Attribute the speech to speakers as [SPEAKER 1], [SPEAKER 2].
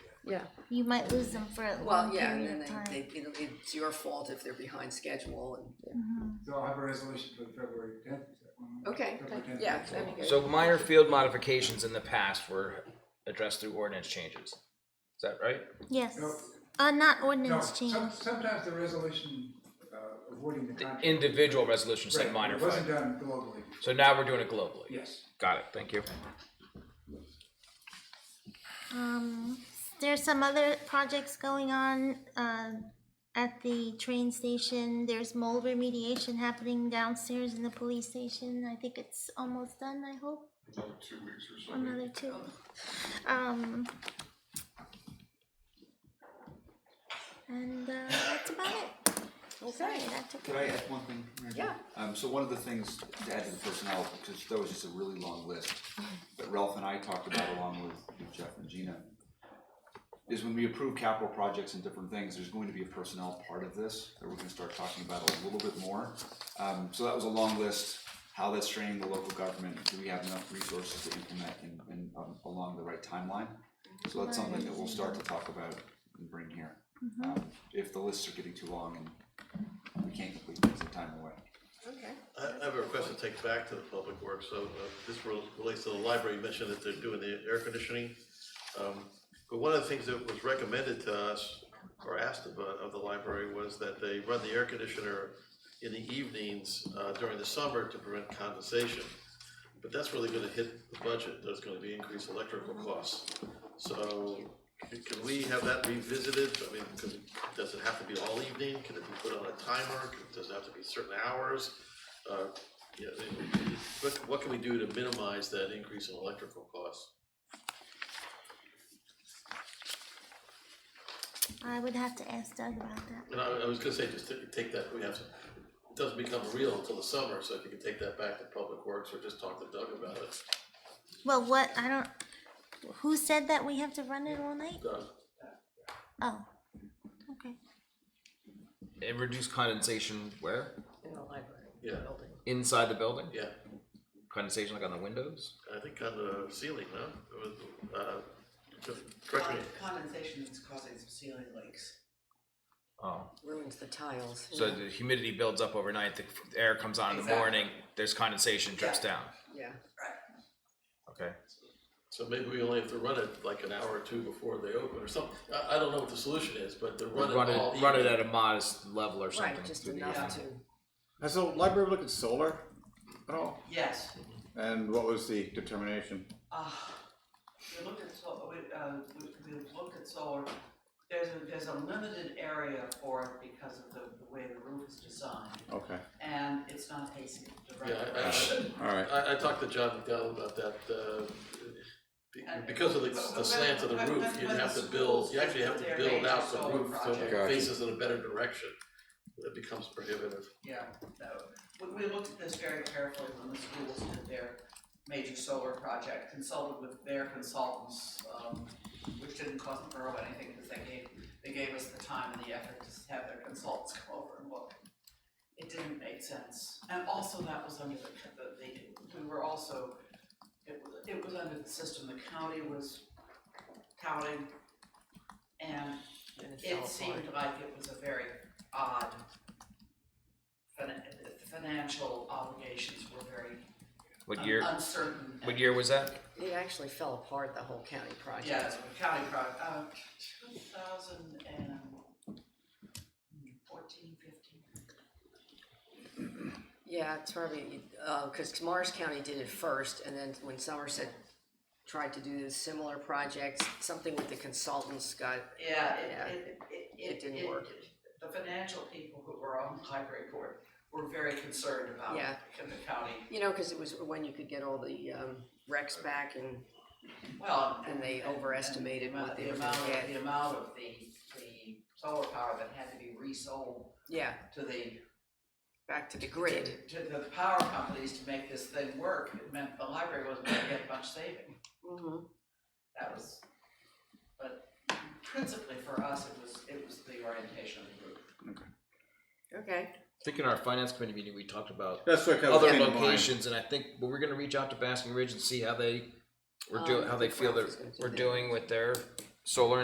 [SPEAKER 1] yeah.
[SPEAKER 2] You might lose them for a
[SPEAKER 3] Well,
[SPEAKER 2] long
[SPEAKER 3] yeah, and
[SPEAKER 2] period
[SPEAKER 3] then
[SPEAKER 2] of time.
[SPEAKER 3] they, they, you know, it's your fault if they're behind schedule and,
[SPEAKER 4] So I'll have a resolution for February tenth, is that one?
[SPEAKER 3] okay,
[SPEAKER 4] February 10th,
[SPEAKER 3] yeah,
[SPEAKER 4] that's all.
[SPEAKER 3] that'd be good.
[SPEAKER 5] So minor field modifications in the past were addressed through ordinance changes. Is that right?
[SPEAKER 2] Yes.
[SPEAKER 4] No.
[SPEAKER 2] Uh, not
[SPEAKER 4] No,
[SPEAKER 2] ordinance change.
[SPEAKER 4] some, sometimes the resolution, uh, avoiding the
[SPEAKER 5] The
[SPEAKER 4] contract.
[SPEAKER 5] individual resolutions
[SPEAKER 4] Right,
[SPEAKER 5] like minor
[SPEAKER 4] It wasn't
[SPEAKER 5] field.
[SPEAKER 4] done globally,
[SPEAKER 5] So now we're doing it globally.
[SPEAKER 4] yes.
[SPEAKER 5] Got it. Thank you.
[SPEAKER 2] Um, there's some other projects going on, uh, at the train station. There's mold remediation happening downstairs in the police station. I think it's almost done, I hope. Another two weeks or so. Another two. Um. And, uh, that's about it. Sorry,
[SPEAKER 3] Okay,
[SPEAKER 2] that took
[SPEAKER 6] Could I add one thing? Mary Jo?
[SPEAKER 3] Yeah.
[SPEAKER 6] Um, so one of the things to add to the personnel, because that was just a really long list, that Ralph and I talked about along with with Jeff and Gina, is when we approve capital projects and different things, there's going to be a personnel part of this that we're gonna start talking about a little bit more. Um, so that was a long list, how that's training the local government, do we have enough resources to implement and, and um, along the right timeline? So that's something that we'll start to talk about and bring here. Um, If the lists are getting too long and we can't complete things in time away.
[SPEAKER 3] okay.
[SPEAKER 7] I I have a request to take back to the public works, so uh, this rel- relates to the library, you mentioned that they're doing the air conditioning. Um, But one of the things that was recommended to us, or asked of, uh, of the library, was that they run the air conditioner in the evenings uh, during the summer to prevent condensation. But that's really gonna hit the budget, there's gonna be increased electrical costs. So can we have that revisited? I mean, can, does it have to be all evening? Can it be put on a timer? Can- Does it have to be certain hours? Uh, yeah, what, what can we do to minimize that increase in electrical costs?
[SPEAKER 2] I would have to ask Doug about that.
[SPEAKER 7] And I, I was gonna say, just ta- take that, we have to, it doesn't become real until the summer, so if you can take that back to Public Works or just talk to Doug about it.
[SPEAKER 2] Well, what, I don't, who said that we have to run it all night?
[SPEAKER 7] Doug,
[SPEAKER 2] Oh, okay.
[SPEAKER 5] And reduce condensation where?
[SPEAKER 3] In the library.
[SPEAKER 7] yeah,
[SPEAKER 5] Inside the building?
[SPEAKER 7] yeah,
[SPEAKER 5] Condensation like on the windows?
[SPEAKER 7] I think on the ceiling, no? It was, uh, Correct me,
[SPEAKER 8] Condensation is causing some ceiling leaks.
[SPEAKER 5] Oh.
[SPEAKER 3] Ruins the tiles.
[SPEAKER 5] So
[SPEAKER 3] yeah.
[SPEAKER 5] the humidity builds up overnight, the f- air comes on in the
[SPEAKER 8] Exactly.
[SPEAKER 5] morning, there's condensation drips
[SPEAKER 8] Yeah.
[SPEAKER 5] down.
[SPEAKER 3] Yeah.
[SPEAKER 5] Okay.
[SPEAKER 7] so maybe we only have to run it like an hour or two before they open or something, I, I don't know what the solution is, but to run it
[SPEAKER 5] Run
[SPEAKER 7] all
[SPEAKER 5] it, run it
[SPEAKER 7] evening.
[SPEAKER 5] at a modest level or something.
[SPEAKER 3] Right, just
[SPEAKER 5] through the
[SPEAKER 3] enough to,
[SPEAKER 5] evening.
[SPEAKER 9] Has the library looked at solar at all?
[SPEAKER 8] Yes.
[SPEAKER 9] And what was the determination?
[SPEAKER 8] Uh, we looked at solar, we, uh, we, we looked at solar, there's a, there's a limited area for it because of the, the way the roof is designed,
[SPEAKER 9] Okay,
[SPEAKER 8] and it's not AC
[SPEAKER 7] Yeah,
[SPEAKER 8] directly.
[SPEAKER 7] I, I,
[SPEAKER 9] all right.
[SPEAKER 7] I, I talked to John McDowell about that, uh, be-
[SPEAKER 8] And-
[SPEAKER 7] because of the,
[SPEAKER 8] but-
[SPEAKER 7] the
[SPEAKER 8] but-
[SPEAKER 7] slant of the
[SPEAKER 8] but-
[SPEAKER 7] roof,
[SPEAKER 8] but-
[SPEAKER 7] you'd
[SPEAKER 8] but
[SPEAKER 7] have
[SPEAKER 8] the
[SPEAKER 7] to build,
[SPEAKER 8] schools
[SPEAKER 7] you actually have
[SPEAKER 8] with
[SPEAKER 7] to
[SPEAKER 8] their
[SPEAKER 7] build out
[SPEAKER 8] major
[SPEAKER 7] the
[SPEAKER 8] solar
[SPEAKER 7] roof so it
[SPEAKER 8] projects.
[SPEAKER 7] faces in a better direction. It becomes prohibitive.
[SPEAKER 8] Yeah, so, we, we looked at this very carefully when the schools did their major solar project, consulted with their consultants, um, which didn't cost the borough anything, because they gave, they gave us the time and the effort to have their consultants come over and look. It didn't make sense, and also that was under the, the, the, we were also, it was, it was under the system the county was touting, and
[SPEAKER 3] and it
[SPEAKER 8] it
[SPEAKER 3] fell apart.
[SPEAKER 8] seemed like it was a very odd, fin- the financial obligations were very
[SPEAKER 5] What
[SPEAKER 8] un-
[SPEAKER 5] year,
[SPEAKER 8] uncertain.
[SPEAKER 5] what year was that?
[SPEAKER 3] It actually fell apart, the whole county project.
[SPEAKER 8] Yeah, it's a county project, uh, two thousand and fourteen, fifteen.
[SPEAKER 3] Yeah, it's probably, uh 'cause cause Mars County did it first, and then when Somerset tried to do similar projects, something with the consultants got,
[SPEAKER 8] Yeah,
[SPEAKER 3] Yeah,
[SPEAKER 8] it, it, it, it.
[SPEAKER 3] it didn't work.
[SPEAKER 8] The financial people who were on the library board were very concerned about
[SPEAKER 3] Yeah.
[SPEAKER 8] the county,
[SPEAKER 3] you know, cause it was when you could get all the, um, recs back and
[SPEAKER 8] well.
[SPEAKER 3] And they overestimated what they
[SPEAKER 8] the
[SPEAKER 3] were gonna
[SPEAKER 8] amount-
[SPEAKER 3] get.
[SPEAKER 8] The amount of the, the solar power that had to be resold
[SPEAKER 3] Yeah,
[SPEAKER 8] to the
[SPEAKER 3] back to the grid.
[SPEAKER 8] to the power companies to make this thing work, it meant the library wasn't gonna get much saving,
[SPEAKER 3] Mm-hmm.
[SPEAKER 8] that was, but principally for us, it was, it was the orientation of the group.
[SPEAKER 3] Okay,
[SPEAKER 5] I think in our finance committee meeting, we talked about
[SPEAKER 9] That's what kind of
[SPEAKER 5] other
[SPEAKER 9] came to mind.
[SPEAKER 5] locations, and I think, well, we're gonna reach out to Basking Ridge and see how they, were doing,
[SPEAKER 3] Um,
[SPEAKER 5] how they feel
[SPEAKER 3] Ralph
[SPEAKER 5] that
[SPEAKER 3] is gonna do
[SPEAKER 5] we're
[SPEAKER 3] that.
[SPEAKER 5] doing with their solar